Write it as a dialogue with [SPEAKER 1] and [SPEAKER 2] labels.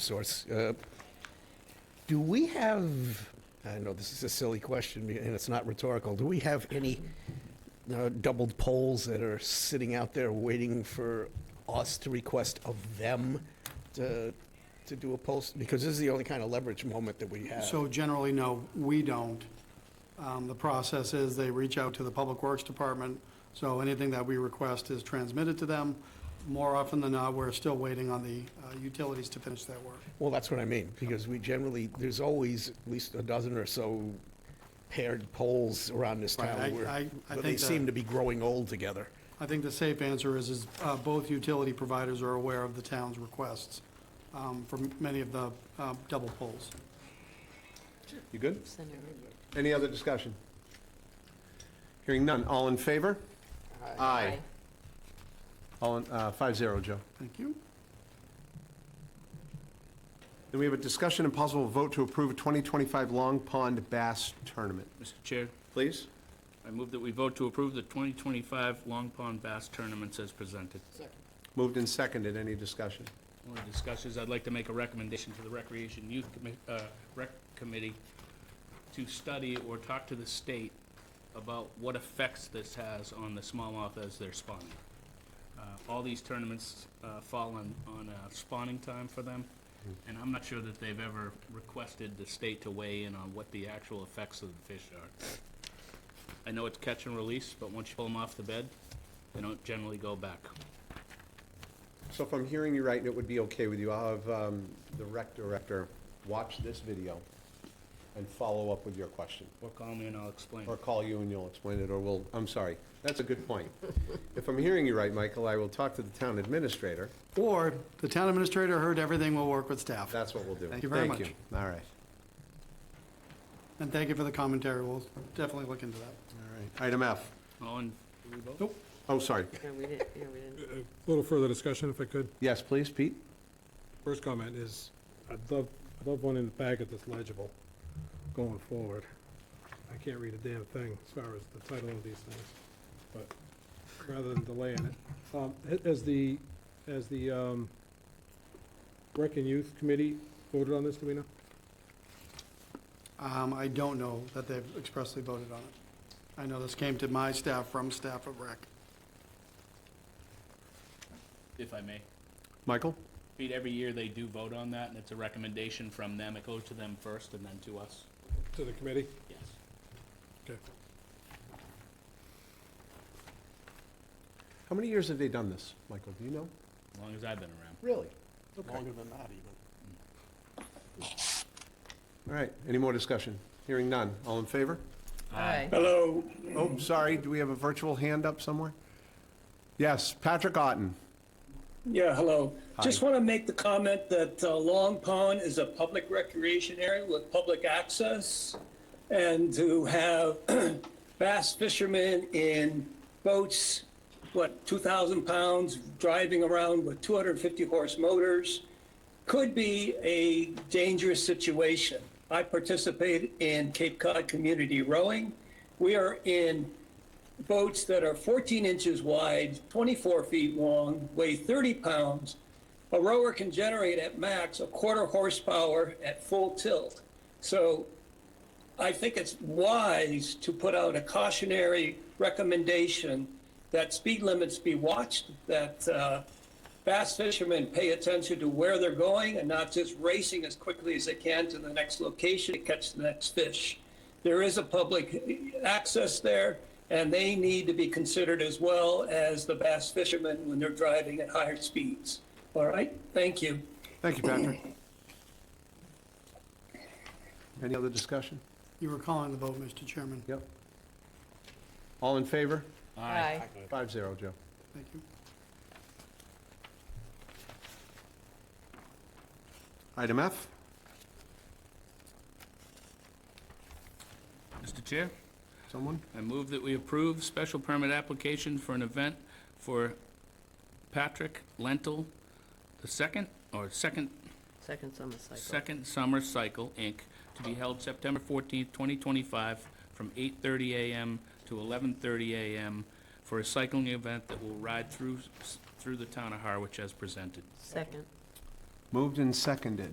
[SPEAKER 1] Eversource. Uh, Do we have, I know this is a silly question and it's not rhetorical, do we have any uh, doubled poles that are sitting out there waiting for us to request of them to, to do a post? Because this is the only kind of leverage moment that we have.
[SPEAKER 2] So generally, no, we don't. Um, The process is they reach out to the Public Works Department, so anything that we request is transmitted to them. More often than not, we're still waiting on the uh, utilities to finish that work.
[SPEAKER 1] Well, that's what I mean, because we generally, there's always at least a dozen or so paired poles around this
[SPEAKER 2] Right, I-
[SPEAKER 1] town. where-
[SPEAKER 2] I- I
[SPEAKER 1] but They
[SPEAKER 2] think that-
[SPEAKER 1] seem to be growing old together.
[SPEAKER 2] I think the safe answer is, is uh, both utility providers are aware of the town's requests um, for many of the uh, double poles.
[SPEAKER 3] You good? Any other discussion? Hearing none. All in favor? Aye. All in, uh, five zero, Joe.
[SPEAKER 2] Thank you.
[SPEAKER 3] Then we have a discussion and possible vote to approve a 2025 Long Pond Bass Tournament.
[SPEAKER 4] Mr. Chair,
[SPEAKER 3] Please?
[SPEAKER 4] I move that we vote to approve the 2025 Long Pond Bass Tournaments as presented.
[SPEAKER 3] Moved and seconded. Any discussion?
[SPEAKER 4] One of the discussions, I'd like to make a recommendation to the Recreation Youth Commi- uh, Rec Committee to study or talk to the state about what effects this has on the smallmouth as they're spawning. Uh, All these tournaments uh, fall on, on uh, spawning time for them, and I'm not sure that they've ever requested the state to weigh in on what the actual effects of the fish are. I know it's catch and release, but once you pull them off the bed, they don't generally go back.
[SPEAKER 3] So if I'm hearing you right, and it would be okay with you, I'll have um, the rec director watch this video and follow up with your question.
[SPEAKER 4] Or call me and I'll explain.
[SPEAKER 3] Or call you and you'll explain it, or we'll, I'm sorry. That's a good point. If I'm hearing you right, Michael, I will talk to the town administrator.
[SPEAKER 2] Or the town administrator heard everything, will work with staff.
[SPEAKER 3] That's what we'll do.
[SPEAKER 2] Thank you very much.
[SPEAKER 3] All right.
[SPEAKER 2] And thank you for the commentary, we'll definitely look into that.
[SPEAKER 3] Item F.
[SPEAKER 4] All in, do we vote?
[SPEAKER 3] Oh, sorry.
[SPEAKER 5] No, we didn't, yeah, we didn't.
[SPEAKER 6] A little further discussion, if I could.
[SPEAKER 3] Yes, please, Pete?
[SPEAKER 6] First comment is, I'd love, I'd love one in the packet that's legible going forward. I can't read a damn thing as far as the title of these things, but rather than delaying it. Um, a- As the, as the um, Rec and Youth Committee voted on this, do we know?
[SPEAKER 2] Um, I don't know that they've expressly voted on it. I know this came to my staff from staff of rec.
[SPEAKER 4] if I may.
[SPEAKER 3] Michael?
[SPEAKER 4] Pete, every year they do vote on that, and it's a recommendation from them. It goes to them first and then to us.
[SPEAKER 6] To the committee?
[SPEAKER 4] Yes.
[SPEAKER 6] Okay.
[SPEAKER 3] How many years have they done this, Michael? Do you know?
[SPEAKER 4] As long as I've been around.
[SPEAKER 3] Really?
[SPEAKER 1] Longer than that even.
[SPEAKER 3] All right. Any more discussion? Hearing none. All in favor?
[SPEAKER 5] Aye.
[SPEAKER 3] Oh, sorry. Do we have a virtual hand up somewhere? Yes, Patrick Otten.
[SPEAKER 7] Yeah, hello.
[SPEAKER 3] Hi.
[SPEAKER 7] Just want to make the comment that uh, Long Pond is a public recreation area with public access. And to have bass fishermen in boats, what, 2,000 pounds, driving around with 250 horse motors could be a dangerous situation. I participate in Cape Cod community rowing. We are in boats that are 14 inches wide, 24 feet long, weigh 30 pounds. A rower can generate at max a quarter horsepower at full tilt. So I think it's wise to put out a cautionary recommendation that speed limits be watched, that uh, bass fishermen pay attention to where they're going and not just racing as quickly as they can to the next location to catch the next fish. There is a public access there, and they need to be considered as well as the bass fishermen when they're driving at higher speeds. All right, thank you.
[SPEAKER 3] Thank you, Patrick. Any other discussion?
[SPEAKER 2] You were calling the vote, Mr. Chairman.
[SPEAKER 3] Yep. All in favor?
[SPEAKER 5] Aye.
[SPEAKER 3] Five zero, Joe.
[SPEAKER 2] Thank you.
[SPEAKER 3] Item F?
[SPEAKER 4] Mr. Chair?
[SPEAKER 3] Someone?
[SPEAKER 4] I move that we approve special permit application for an event for Patrick Lentil, the second, or second,
[SPEAKER 5] Second summer cycle.
[SPEAKER 4] second summer cycle, Inc., to be held September fourteenth, twenty twenty-five, from eight-thirty AM to eleven-thirty AM for a cycling event that will ride through, s- through the town of Harwich as presented.
[SPEAKER 5] Second.
[SPEAKER 3] Moved and seconded.